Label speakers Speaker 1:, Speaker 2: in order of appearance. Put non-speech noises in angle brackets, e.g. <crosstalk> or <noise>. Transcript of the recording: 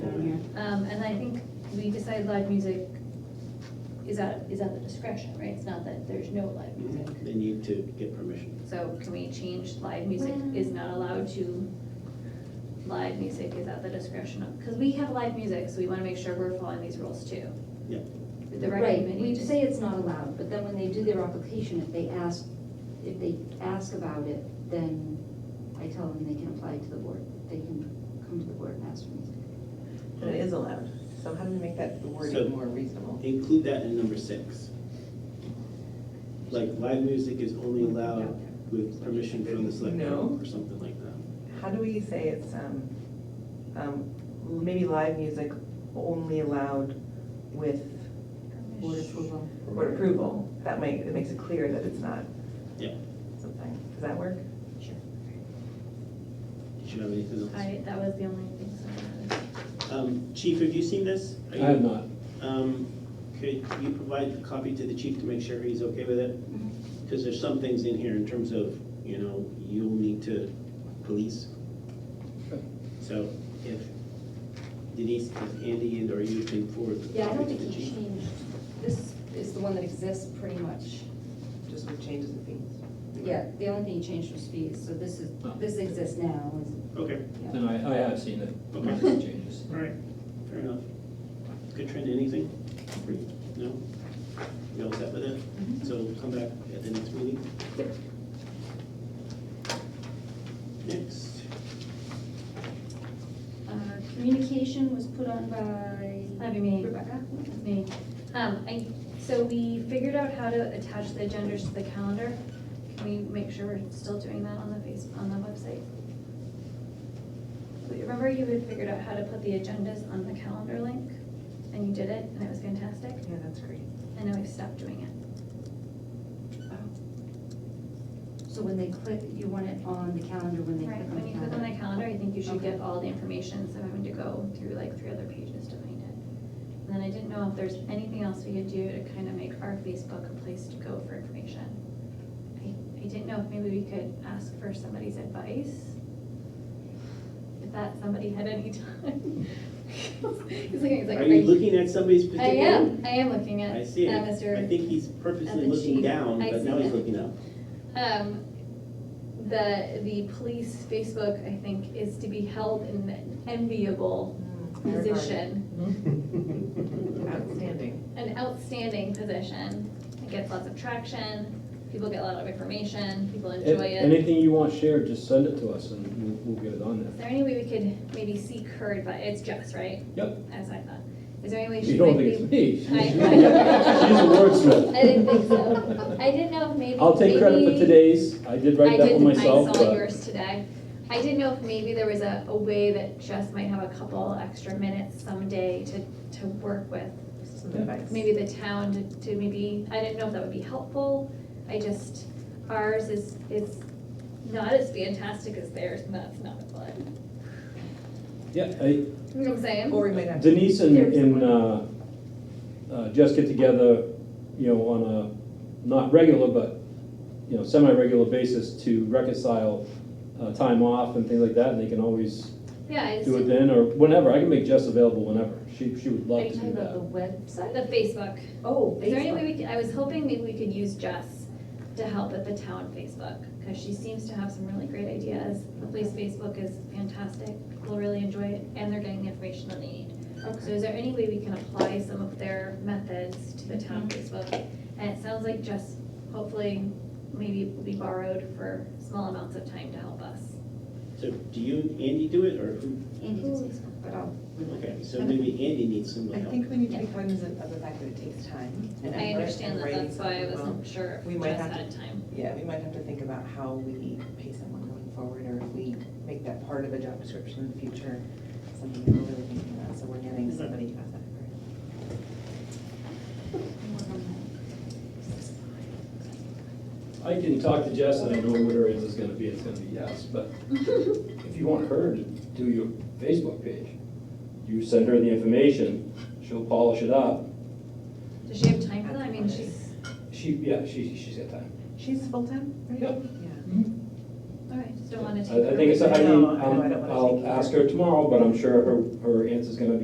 Speaker 1: Um, I think we decide live music is at, is at the discretion, right? It's not that there's no live music.
Speaker 2: They need to get permission.
Speaker 1: So can we change live music is not allowed to, live music is at the discretion of, because we have live music, so we want to make sure we're following these rules too.
Speaker 2: Yeah.
Speaker 1: The rec
Speaker 3: Right,
Speaker 1: committee
Speaker 3: we
Speaker 1: just-
Speaker 3: say it's not allowed, but then when they do their application, if they ask, if they ask about it, then I tell them they can apply to the board. They can come to the board and ask for music.
Speaker 4: But it is allowed, so how do we make that
Speaker 2: So-
Speaker 4: wording more reasonable?
Speaker 2: Include that in number six. Like, live music is only allowed with permission from the select
Speaker 4: No.
Speaker 2: board or something like that.
Speaker 4: How do we say it's, um, um, maybe live music only allowed with
Speaker 3: Board approval.
Speaker 4: board approval? That make, it makes it clear that it's not
Speaker 2: Yeah.
Speaker 4: something, does that work?
Speaker 2: Did you have anything else?
Speaker 1: I, that was the only thing. so I had.
Speaker 2: Um, Chief, have you seen this? Are
Speaker 5: I
Speaker 2: you-
Speaker 5: have not.
Speaker 2: Um, Could you provide a copy to the chief to make sure he's okay with
Speaker 3: Mm-hmm.
Speaker 2: it? Because there's some things in here in terms of, you know, you'll need to police.
Speaker 5: Okay.
Speaker 2: So if Denise, if Andy and or you can forward. the
Speaker 3: Yeah, I don't
Speaker 2: copy to
Speaker 3: think
Speaker 2: the
Speaker 3: he
Speaker 2: chief.
Speaker 3: changed, this is the one that exists pretty much.
Speaker 4: Just with changes in fees?
Speaker 3: Yeah, the only thing he changed was fees, so this is, this exists now. is-
Speaker 2: Okay,
Speaker 3: yeah.
Speaker 5: No, I, I have seen it,
Speaker 2: Okay.
Speaker 5: nothing changes.
Speaker 2: all right, fair enough. Good trend, anything? for you? No? You all set with it?
Speaker 3: Mm-hmm.
Speaker 2: So we'll come back at the next meeting? Next,
Speaker 3: Uh, Communication was put on by
Speaker 1: That'd be me.
Speaker 3: Rebecca.
Speaker 1: That's me. Um, I, so we figured out how to attach the agendas to the calendar. Can we make sure we're still doing that on the face, on the website? Remember you had figured out how to put the agendas on the calendar link? And you did it, and it was fantastic,
Speaker 4: Yeah, that's great.
Speaker 1: and now we've stopped doing it.
Speaker 3: So when they click, you want it on the calendar when they click
Speaker 1: Right,
Speaker 3: on the
Speaker 1: when you click on the
Speaker 3: calendar.
Speaker 1: calendar, I think you should
Speaker 3: Okay.
Speaker 1: get all the information, so I'm having to go through like three other pages to find it. And then I didn't know if there's anything else we could do to kind of make our Facebook a place to go for information. I, I didn't know if maybe we could ask for somebody's advice. If that somebody had any time. <laughs> He's looking, he's like.
Speaker 2: are you looking at somebody's
Speaker 1: I
Speaker 2: particular?
Speaker 1: am, I am looking at,
Speaker 2: I
Speaker 1: at
Speaker 2: see it.
Speaker 1: Mr.
Speaker 2: I think he's purposely
Speaker 1: the
Speaker 2: looking
Speaker 1: chief.
Speaker 2: down,
Speaker 1: I
Speaker 2: but
Speaker 1: see
Speaker 2: now he's
Speaker 1: it.
Speaker 2: looking
Speaker 1: <laughs>
Speaker 2: up.
Speaker 1: Um, the, the police Facebook, I think, is to be held in an enviable
Speaker 4: Hmm,
Speaker 1: position,
Speaker 4: Outstanding.
Speaker 1: an outstanding position. It gets lots of traction, people get a lot of information, people
Speaker 5: A-
Speaker 1: enjoy it.
Speaker 5: Anything you want shared, just send it to us and we'll, we'll get it on
Speaker 1: Is
Speaker 5: there.
Speaker 1: there any way we could maybe seek her advice? It's Jess, right?
Speaker 5: Yep.
Speaker 1: As I thought. Is there any way she might
Speaker 5: You don't
Speaker 1: be?
Speaker 5: think it's me? She's she's
Speaker 1: I-
Speaker 5: <laughs> a wordsmith.
Speaker 1: I didn't think so. I didn't know if maybe.
Speaker 5: <laughs> I'll take credit for
Speaker 1: maybe-
Speaker 5: today's, I did write
Speaker 1: I
Speaker 5: that one
Speaker 1: didn't-
Speaker 5: myself,
Speaker 1: I saw
Speaker 5: but-
Speaker 1: yours today. I didn't know if maybe there was a, a way that Jess might have a couple extra minutes someday to, to work with.
Speaker 4: Some advice.
Speaker 1: Maybe the town to, to maybe, I didn't know if that would be helpful. I just, ours is, is not as fantastic as theirs, and that's not what,
Speaker 5: Yeah, I-
Speaker 1: you know what I'm saying?
Speaker 4: Or we might have. to-
Speaker 5: Denise and,
Speaker 1: There's
Speaker 5: and uh, uh, Jess get together, you know, on a, not regular, but, you know, semi-regular basis to reconcile uh, time off and things like that, and they can always
Speaker 1: Yeah, it's
Speaker 5: do it
Speaker 1: the
Speaker 5: then, or whenever, I can make Jess available whenever, she, she would
Speaker 3: Are
Speaker 5: love
Speaker 3: you
Speaker 5: to
Speaker 3: talking
Speaker 5: do
Speaker 3: about the
Speaker 5: that.
Speaker 3: website?
Speaker 1: Facebook.
Speaker 3: Oh,
Speaker 1: Is there any
Speaker 3: Facebook.
Speaker 1: way we could, I was hoping maybe we could use Jess to help at the town Facebook, because she seems to have some really great ideas. The police Facebook is fantastic, people really enjoy it, and they're getting the information that they need. So is there any way we can apply some of their methods to the town Facebook? And it sounds like Jess, hopefully, maybe will be borrowed for small amounts of time to help us.
Speaker 2: So do you, and Andy do it, or who?
Speaker 3: Andy does Facebook, but I'll.
Speaker 2: Okay, so maybe Andy needs some
Speaker 4: I
Speaker 2: help.
Speaker 4: think we need to be cognizant of the fact that it takes time and effort.
Speaker 1: I understand
Speaker 4: and
Speaker 1: that,
Speaker 4: writing
Speaker 1: that's why I
Speaker 4: something well.
Speaker 1: wasn't sure
Speaker 4: We
Speaker 1: if
Speaker 4: might
Speaker 1: Jess
Speaker 4: have to-
Speaker 1: had time.
Speaker 4: Yeah, we might have to think about how we pay someone going forward, or if we make that part of a job description in the future, something that we're really thinking about, so we're getting somebody to have that.
Speaker 5: I can talk to Jess, and I know what her answer is gonna be, it's gonna be yes, but if you want her to do your Facebook page, you send her the information, she'll polish it up,
Speaker 1: Does she have time for that? I mean, she's,
Speaker 5: she, yeah, she, she's got time.
Speaker 4: She's full-time, right?
Speaker 5: Yep.
Speaker 4: Yeah.
Speaker 1: all right, just don't want to take.
Speaker 5: I I
Speaker 1: her
Speaker 5: think it's, I
Speaker 4: No,
Speaker 5: mean,
Speaker 4: I know, I don't
Speaker 5: um,
Speaker 4: wanna take
Speaker 5: I'll
Speaker 4: her.
Speaker 5: ask her tomorrow, but I'm sure her, her answer's gonna be